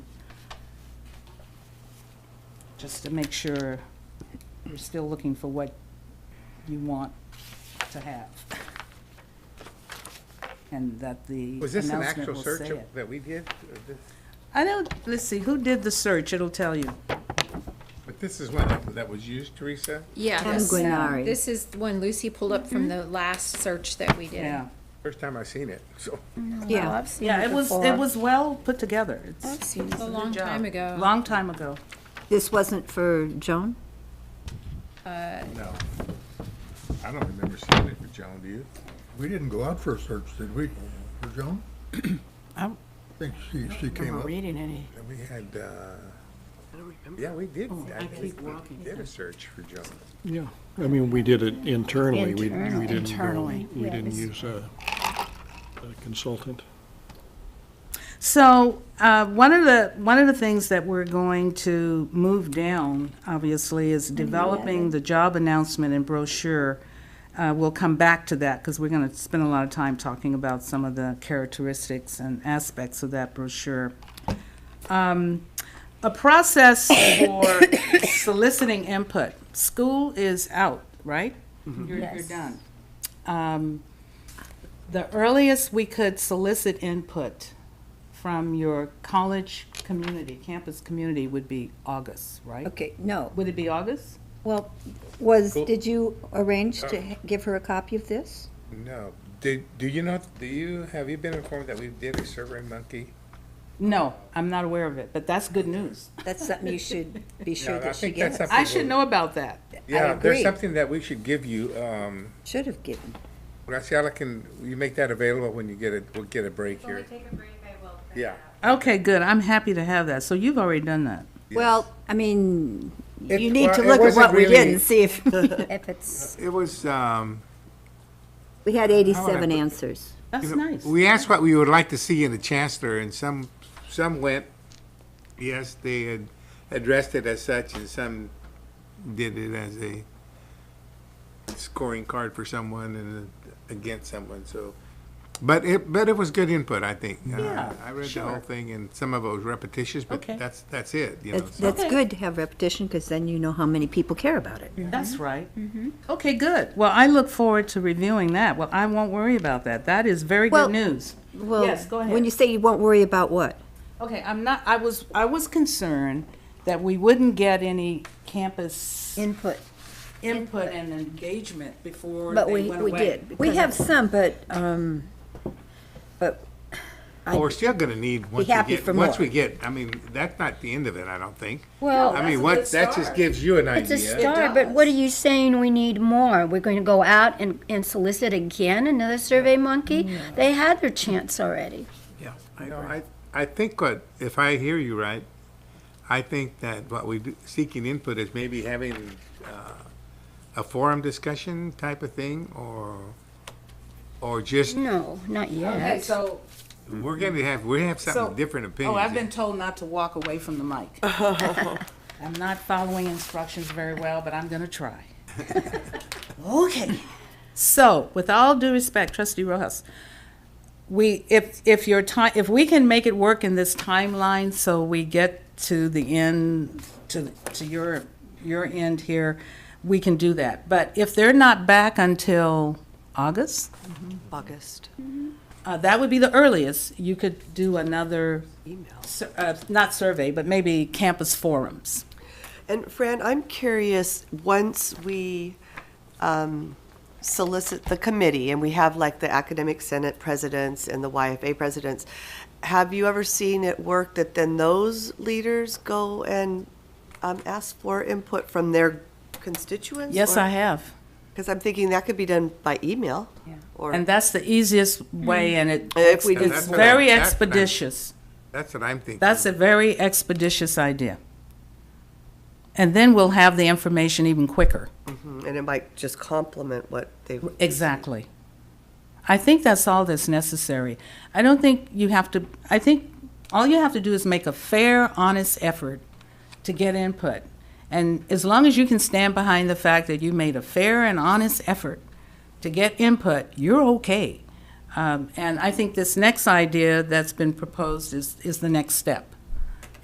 just to make sure you're still looking for what you want to have. And that the Was this an announcement actual will say search it. that we did? Or this- I don't, let's see, who did the search? It'll tell you. But this is one that- that was used, Teresa? Yeah. Tom this- Guinari. This is the one Lucy pulled up from the last search that we did. Yeah. First time I've seen it, so. Yeah. I've seen Yeah, it was, it before. was well put together. It's I've seen it. A long time a ago. long time ago. This wasn't for Joan? Uh, No. I don't remember seeing it for Joan, do you? We didn't go out for a search, did we, for Joan? I I'm- think she, she came up. reading any. And we had, uh, yeah, we did. I keep walking. Did a search for Joan. Yeah, I mean, we did it internally. We- Internal- We didn't go, internally, we yeah, didn't this- use a a consultant. So, uh, one of the, one of the things that we're going to move down, obviously, is developing the job announcement and brochure. Uh, We'll come back to that, because we're going to spend a lot of time talking about some of the characteristics and aspects of that brochure. Um, A process for soliciting input. School is out, right? You're you're Yes. done. Um, The earliest we could solicit input from your college community, campus community, would be August, right? Okay, no. Would it be August? Well, was, Cool. Uh. did you arrange to h- give her a copy of this? No. Did, do you know, do you, have you been informed that we did a Survey Monkey? No, I'm not aware of it, but that's good news. That's something you should be sure Yeah, I that she think that's gets. something I should know about that. Yeah, agree. there's something that we should give you, um, Should have given. Graciela, can you make that available when you get it, we'll get a break here? Take a break, I will. print it Yeah. out. Okay, good. I'm happy to have that. So you've already done that. Well, I mean, It- you need well, to it look at wasn't what we did really- and see if, If it's, It was, um, we had How would I 87 put- answers. That's nice. we asked what we would like to see in the chancellor, and some, some went, yes, they had addressed it as such, and some did it as a scoring card for someone and against someone, so. But it, but it was good input, I think. Uh, Yeah, I read the sure. whole thing, and some of it was repetitious, but Okay. that's, that's it, you know. That's so. that's good to have repetition, because then you know how many people care about it. That's Mhm. right. Okay, good. Well, I look forward to reviewing that. Well, I won't worry about that. That is very Well- good news. Well, Yes, go ahead. When you say you won't worry about what? Okay, I'm not, I was, I was concerned that we wouldn't get any campus Input. input and engagement before But they we, went we away. did. We have some, but, um, but Well, we're still gonna need, once we happy get, for once more. we get, I mean, that's not the end of it, I don't think. Well, I mean, what, that just gives you an it's a idea. start, but what are you saying we need more? We're going to go out and, and solicit again another Survey Monkey? Mm. They had their chance already. Yeah, I I, I think what, if I hear you right, I think that what we do, seeking input is maybe having, uh, a forum discussion type of thing, or, or just, No, not Okay, yet. so we're gonna have, we have So- something different opinions. Oh, I've been told not to walk away from the mic. I'm not following instructions very well, but I'm gonna try. Okay. So, with all due respect, trustee Rojas, we, if, if your time, if we can make it work in this timeline, so we get to the end, to, to your, your end here, we can do that. But if they're not back until August, August. uh, that would be the earliest. You could do another, sur- uh, not survey, but maybe campus forums. And Fran, I'm curious, once we um, solicit the committee, and we have like the Academic Senate presidents and the YFA presidents, have you ever seen it work that then those leaders go and um, ask for input from their constituents? Yes, I have. Because I'm thinking that could be done by email. Or, And that's the easiest way, and it, If we did it's more. very Hmm. That's what I- expeditious. That's what I'm thinking. That's a very expeditious idea. And then we'll have the information even quicker. Mhm, and it might just complement what they've. Exactly. I think that's all that's necessary. I don't think you have to, I think all you have to do is make a fair, honest effort to get input. And as long as you can stand behind the fact that you made a fair and honest effort to get input, you're okay. Um, and I think this next idea that's been proposed is, is the next step.